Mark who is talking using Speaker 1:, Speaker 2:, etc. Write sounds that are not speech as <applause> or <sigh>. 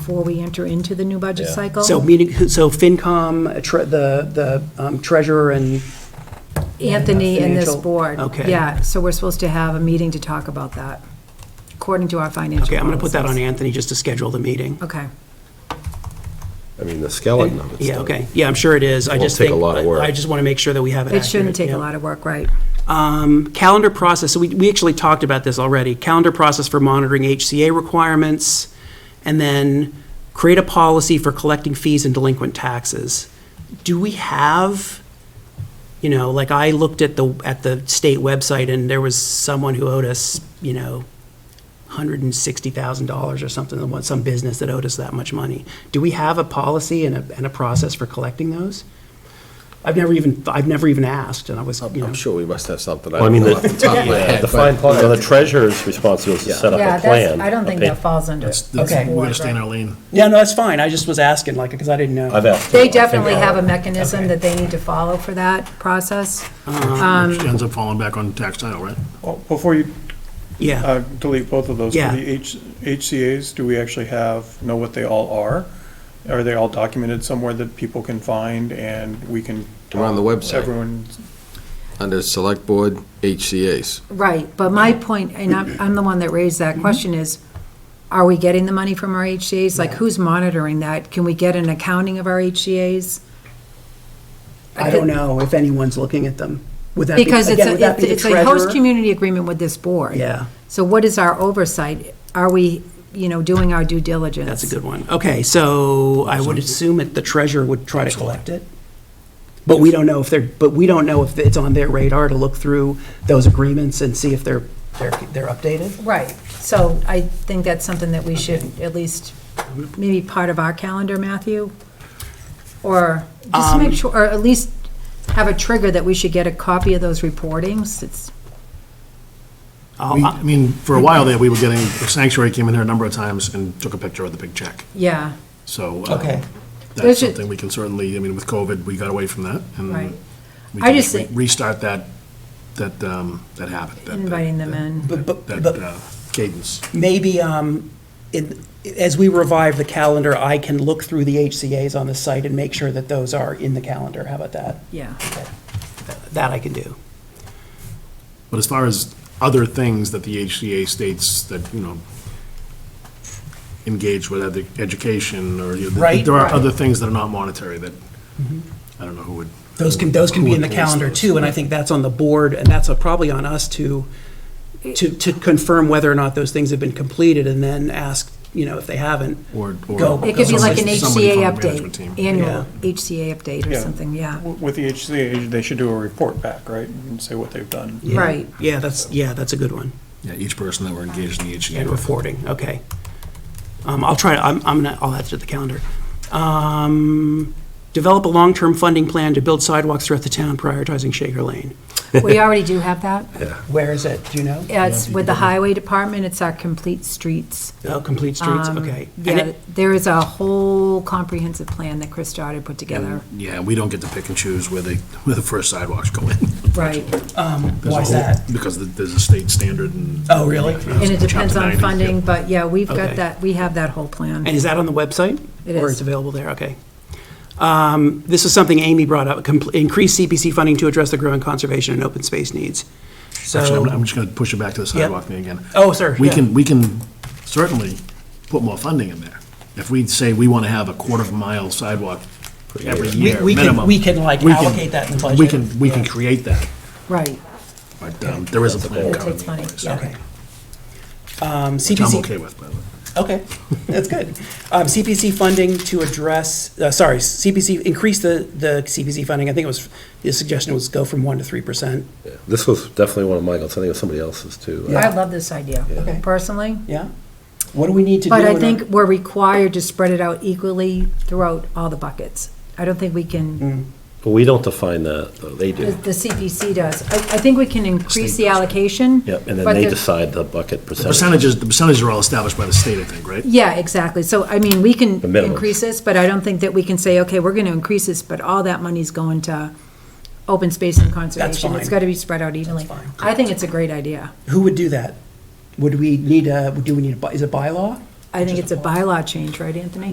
Speaker 1: before we enter into the new budget
Speaker 2: Yeah.
Speaker 1: cycle.
Speaker 3: So meeting, so FinCom, tre- the, the um, treasurer and,
Speaker 1: Anthony and this
Speaker 3: Financial-
Speaker 1: board.
Speaker 3: okay.
Speaker 1: Yeah, so we're supposed to have a meeting to talk about that, according to our financial
Speaker 3: okay, I'm going to put that on
Speaker 1: policies.
Speaker 3: Anthony just to schedule the meeting.
Speaker 1: Okay,
Speaker 2: I mean, the skeleton of it's
Speaker 3: Yeah,
Speaker 2: done.
Speaker 3: okay. Yeah, I'm sure it is. I
Speaker 2: Won't
Speaker 3: just
Speaker 2: take a
Speaker 3: think.
Speaker 2: lot of work.
Speaker 3: I just want to make sure that we have it
Speaker 1: it shouldn't
Speaker 3: accurate,
Speaker 1: take a
Speaker 3: yeah.
Speaker 1: lot of work, right?
Speaker 3: Um, Calendar process, so we, we actually talked about this already. Calendar process for monitoring HCA requirements, and then create a policy for collecting fees and delinquent taxes. Do we have, you know, like I looked at the, at the state website, and there was someone who owed us, you know, $160,000 or something, some business that owed us that much money. Do we have a policy and a, and a process for collecting those? I've never even, I've never even asked, and I was, you know.
Speaker 4: I'm sure we must have something.
Speaker 2: Well, I mean,
Speaker 4: don't know off top of my
Speaker 2: the,
Speaker 4: head,
Speaker 2: the
Speaker 4: but-
Speaker 2: fine, point- well, the treasurer's responsibility is to set up
Speaker 1: Yeah,
Speaker 2: a
Speaker 1: that's,
Speaker 2: plan.
Speaker 1: I don't think
Speaker 2: a
Speaker 1: that falls under
Speaker 5: That's,
Speaker 1: it.
Speaker 5: that's,
Speaker 1: Okay.
Speaker 5: we're gonna stay in our lane.
Speaker 3: Yeah, no, that's fine. I just was asking, like, because I didn't know.
Speaker 2: I've asked.
Speaker 1: They definitely
Speaker 2: uh,
Speaker 1: have a
Speaker 3: Okay.
Speaker 1: mechanism that they need to follow for that process. Um,
Speaker 5: She ends up falling back on tax title, right?
Speaker 6: Well, Before you
Speaker 3: Yeah,
Speaker 6: uh, delete both of those, for
Speaker 3: Yeah.
Speaker 6: the H- HCA's, do we actually have, know what they all are? Are they all documented somewhere that people can find and we can?
Speaker 4: They're on the website.
Speaker 6: Everyone,
Speaker 4: Under Select Board HCA's.
Speaker 1: Right, but my point, and I'm, I'm the one that raised that question, is are we getting the money from our HCA's? Like, who's monitoring that? Can we get an accounting of our HCA's?
Speaker 3: I don't know if anyone's looking at them. Would that be,
Speaker 1: Because it's,
Speaker 3: again, would that be
Speaker 1: a-
Speaker 3: the
Speaker 1: it's a host
Speaker 3: treasurer?
Speaker 1: community agreement with this board.
Speaker 3: Yeah.
Speaker 1: So what is our oversight? Are we, you know, doing our due diligence?
Speaker 3: That's a good one. Okay, so I would assume that the treasurer would try to collect it. But we don't know if they're, but we don't know if it's on their radar to look through those agreements and see if they're, they're, they're updated.
Speaker 1: Right, so I think that's something that we should at least, maybe part of our calendar, Matthew? Or just to
Speaker 5: Um,
Speaker 1: make sure, or at least have a trigger that we should get a copy of those reportings. It's,
Speaker 3: Oh,
Speaker 5: We-
Speaker 3: uh,
Speaker 5: I mean, for a while there, we were getting, Sanctuary came in here a number of times and took a picture of the big check.
Speaker 1: yeah,
Speaker 5: So. uh,
Speaker 3: Okay.
Speaker 1: There's
Speaker 5: That's
Speaker 1: ju-
Speaker 5: something we can certainly, I mean, with COVID, we got away from that. and
Speaker 1: Right.
Speaker 5: We
Speaker 1: I
Speaker 5: can
Speaker 1: just
Speaker 5: re-
Speaker 1: think-
Speaker 5: restart that, that, um, that habit. that- that-
Speaker 1: inviting them in.
Speaker 3: But, but,
Speaker 5: That
Speaker 3: but
Speaker 5: uh, cadence.
Speaker 3: maybe, um, it, as we revive the calendar, I can look through the HCA's on the site and make sure that those are in the calendar. How about that?
Speaker 1: Yeah,
Speaker 3: That I can do.
Speaker 5: But as far as other things that the HCA states that, you know, engage with other education or, you know,
Speaker 3: Right,
Speaker 5: there are
Speaker 3: right. Mm-hmm.
Speaker 5: other things that are not monetary that, I don't know who would.
Speaker 3: Those can, those can
Speaker 5: who
Speaker 3: be
Speaker 5: would
Speaker 3: in the
Speaker 5: police
Speaker 3: calendar
Speaker 5: those.
Speaker 3: too, and I think that's on the board, and that's probably on us to, to, to confirm whether or not those things have been completed, and then ask, you know, if they haven't.
Speaker 5: Or- or-
Speaker 3: Go.
Speaker 1: it could be like an
Speaker 5: Somebody- somebody
Speaker 1: HCA
Speaker 5: from the management
Speaker 1: update,
Speaker 5: team.
Speaker 1: annual HCA update or
Speaker 6: Yeah.
Speaker 1: something, yeah.
Speaker 6: w- with the HCA, they should do a report back, right? And say what they've done.
Speaker 1: <laughs>
Speaker 3: Yeah.
Speaker 1: Right.
Speaker 3: Yeah, that's, yeah, that's a good one.
Speaker 5: Yeah, each person that were engaged in the HCA.
Speaker 3: And reporting, okay. Um, I'll try, I'm, I'm gonna, I'll add to the calendar. Um, develop a long-term funding plan to build sidewalks throughout the town, prioritizing Shaker Lane.
Speaker 1: We already do have that.
Speaker 3: Where is it, do you know?
Speaker 1: Yeah, It's with the highway department, it's our complete streets.
Speaker 3: Oh, Complete Streets,
Speaker 1: Um,
Speaker 3: okay. And
Speaker 1: Yeah,
Speaker 3: it-
Speaker 1: there is a whole comprehensive plan that Chris Dodd had put together.
Speaker 5: Yeah, we don't get to pick and choose where they, where the first sidewalks go in.
Speaker 1: Right,
Speaker 5: There's a
Speaker 3: Why is
Speaker 5: whole-
Speaker 3: that?
Speaker 5: Because th- there's a state standard and.
Speaker 3: Oh, really?
Speaker 1: and it depends
Speaker 5: Chapter
Speaker 1: on
Speaker 5: 90,
Speaker 1: funding, but yeah, we've
Speaker 3: Okay.
Speaker 1: got that, we have that whole plan.
Speaker 3: And is that on the website?
Speaker 1: It
Speaker 3: Or
Speaker 1: is.
Speaker 3: it's available there, okay. Um, This is something Amy brought up, compl- increase CPC funding to address the growing conservation and open space needs.
Speaker 5: Actually, I'm- I'm
Speaker 3: So,
Speaker 5: just going to push it back to the sidewalk thing again.
Speaker 3: Oh, sir,
Speaker 5: We
Speaker 3: yeah.
Speaker 5: can, we can certainly put more funding in there. If we say we want to have a quarter of a mile sidewalk every year,
Speaker 3: we can-
Speaker 5: minimum.
Speaker 3: we can, like,
Speaker 5: we can-
Speaker 3: allocate that in the
Speaker 5: We
Speaker 3: budget.
Speaker 5: can, we can
Speaker 3: Yeah.
Speaker 5: create that,
Speaker 1: Right,
Speaker 5: but um, there is a plan
Speaker 1: It
Speaker 5: currently.
Speaker 1: takes
Speaker 5: in
Speaker 1: money.
Speaker 5: place,
Speaker 3: okay. Um,
Speaker 5: Which I'm
Speaker 3: CPC.
Speaker 5: okay with, by the way.
Speaker 3: Okay, that's good. Um, CPC funding to address, uh, sorry, CPC, increase the, the CPC funding. I think it was, the suggestion was go from 1% to 3%.
Speaker 2: This was definitely one of Michael's, I think it was somebody else's too.
Speaker 1: I love this idea,
Speaker 3: Okay.
Speaker 1: personally.
Speaker 3: Yeah? What do we need to do?
Speaker 1: But
Speaker 3: in
Speaker 1: I
Speaker 3: our-
Speaker 1: think we're required to spread it out equally throughout all the buckets. I don't think we
Speaker 3: Mm.
Speaker 1: can,
Speaker 2: But we don't define that, though, they
Speaker 1: the
Speaker 2: do.
Speaker 1: the CPC does. I, I think we can increase the allocation.
Speaker 2: Yep, and
Speaker 1: but
Speaker 2: then they
Speaker 1: the-
Speaker 2: decide the bucket
Speaker 5: The
Speaker 2: percentage.
Speaker 5: percentages, the percentages are all established by the state, I think, right?
Speaker 1: Yeah, exactly. So, I mean, we can
Speaker 2: The minimum.
Speaker 1: increase this, but I don't think that we can say, okay, we're gonna increase this, but all that money's going to open space and conservation. It's
Speaker 3: fine.
Speaker 1: gotta be spread out evenly. I think it's a great idea.
Speaker 3: Who would do that? Would we need a, do we need a, by- is it bylaw?
Speaker 1: I think it's a bylaw change, right, Anthony?